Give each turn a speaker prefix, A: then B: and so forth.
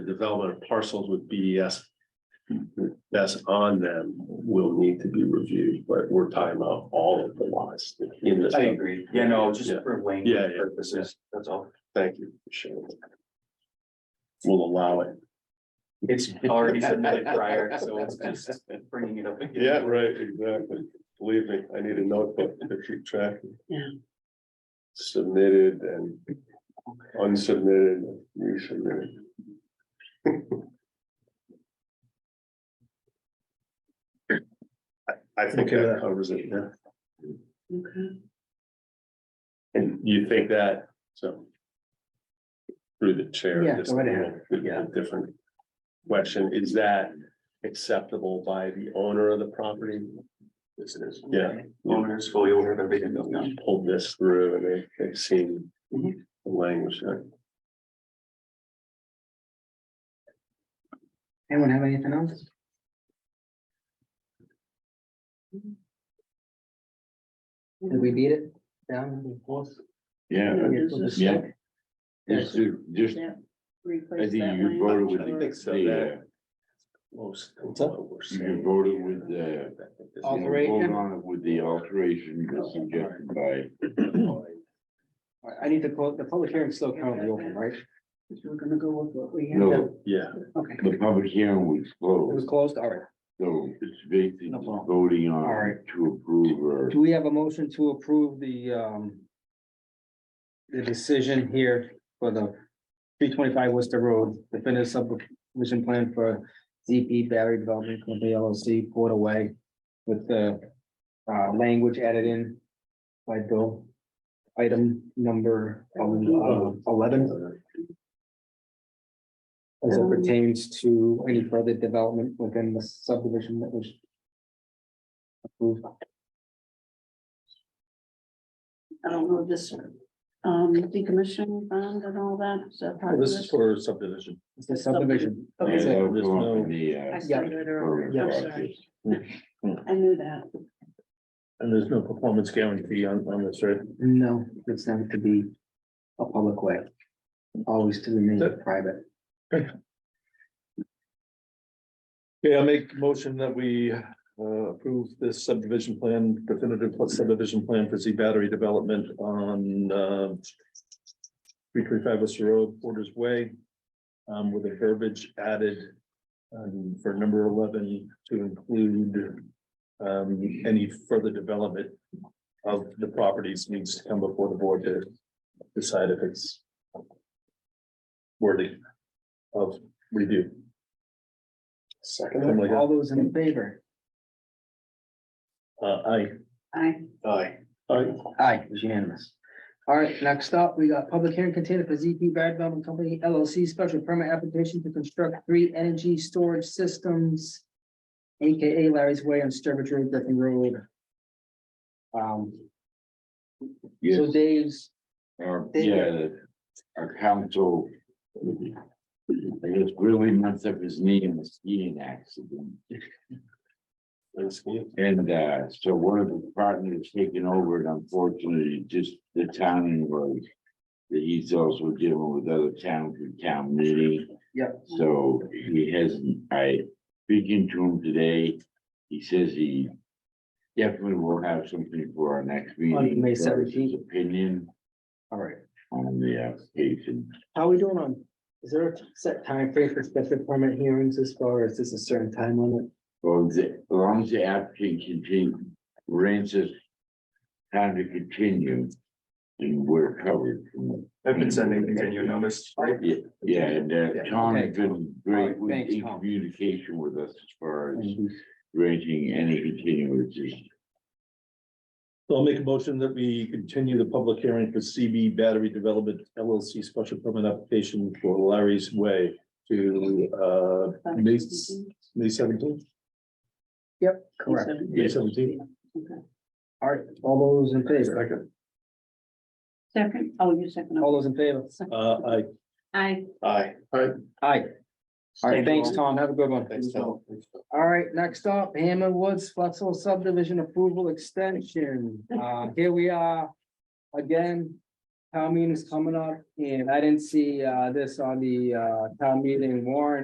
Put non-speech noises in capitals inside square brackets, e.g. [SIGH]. A: development of parcels with BES. That's on them will need to be reviewed, but we're talking about all of the laws in this.
B: I agree. Yeah, no, just
A: Yeah.
B: for Wayne
A: Yeah, yeah.
B: purposes, that's all.
A: Thank you. appreciate it. We'll allow it. [LAUGHS]
B: It's already submitted prior, so it's just bringing it up. again.
A: right, exactly. Believe me, I need a notebook to keep track.
C: Yeah.
A: Submitted and unsubmitted, resubmitted. [LAUGHS] I think that covers it, yeah.
C: Okay.
A: And you think that, so. Through the chair.
C: Yeah,
A: just,
C: go right ahead.
A: you know,
C: Yeah.
A: a Different question, is that acceptable by the owner of the property?
B: This is-
A: Yeah.
B: Owners fully aware of everything going on.
A: Pulled this through and they, they've seen the
C: Mm-hmm.
B: Mhm.
A: language. there.
C: Anyone have anything else? Did we beat it down?
D: [CLEARS THROAT] Yeah, yeah. Just, to- just,
E: Yeah.
D: I think
E: Replace that
D: you voted with
A: I think
D: the,
A: so,
D: the, uh,
A: Most. of
D: What's that?
A: what we're
D: You
A: saying
D: voted
A: here.
D: with the-
A: This is-
D: you
C: Alteration?
D: voted on it with the alteration as suggested by, [CLEARS THROAT]
C: I need to close, the public hearing's still currently open, right?
E: We're gonna go with what we have.
D: no,
A: Yeah,
C: Okay, it
D: the public hearing was
C: was
D: closed,
C: closed, all right.
D: so it's basically
C: No problem.
D: voting
C: All
D: on
C: right.
D: to approve or.
C: Do we have a motion to approve the, um, the decision here for the three twenty-five Worcester Road, definitive subdivision plan for ZP Battery Development Company LLC, Port Away, with the, uh, language added in by Bill. Item number um, eleven as it pertains to any further development within the subdivision that was approved.
E: I don't know this, um, decommission bond and all that, is that part of
F: This is
E: this?
F: for subdivision.
C: It's the subdivision.
D: Yeah,
E: Okay.
D: that was
F: there's
D: on
F: no-
D: the, uh,
E: I started it earlier,
D: Yeah.
E: I'm sorry. I knew that.
F: And there's no performance guarantee on, on this, right?
C: No, it's not to be a public way. Always to remain private.
F: Okay, I make motion that we uh, approve this subdivision plan, definitive subdivision plan for Z battery development on uh, three three five Worcester Road, Porter's Way, um, with a verbiage added um, for number eleven to include um, any further development of the properties needs to come before the board to decide if it's worthy of review.
A: second,
F: Something like that.
C: All those in favor?
F: Uh, I,
E: I,
A: aye, aye,
C: Aye, it's unanimous. All right, next up, we got public hearing container for ZP Bad Development Company LLC special permit application to construct three energy storage systems. AKA Larry's Way on Sturbridge Road, Griffin Road. Um,
D: yes,
C: so Dave's,
D: uh,
C: They-
D: yeah, the- our council. I guess really messed up his knee in a skiing accident.
A: Thanks, Ian.
D: And uh, so one of the partners taking over and unfortunately, just the town was. He's also dealing with other towns and town meeting.
C: Yep.
D: So he hasn't, I speaking to him today, he says he. Definitely will have something for our next meeting.
C: May
D: as far as his
C: 17th.
D: Opinion
C: all right,
D: on the application.
C: how are we doing on, is there a set time frame for special permit hearings as far as this a certain time limit?
D: Well, the, as long as the applicant continue, rents us. Time to continue. And we're covered from
B: I've been sending continued notice, right?
D: Yeah, yeah, and
B: Yeah,
D: uh, Tom
C: okay.
D: has been great
C: All right,
D: with
C: thanks,
D: in
C: Tom. Mm.
D: communication with us as far as granting any continuances.
F: So I'll make a motion that we continue the public hearing for CB Battery Development LLC special permit application for Larry's Way to uh, May, May seventeenth,
C: Correct.
F: May seventeenth.
C: All right, all those in favor,
E: Second, oh, you second.
C: all those in favor?
F: Uh, I,
E: I,
A: aye, aye.
C: Aye. All right,
A: Thank
C: thanks,
A: you.
C: Tom. Have a good one.
A: Thanks, Tom.
C: All right, next up, Hammond Woods Flexible Subdivision Approval Extension. Uh, here we are again. town meeting is coming up, and I didn't see, uh, this on the, uh, town meeting warrant.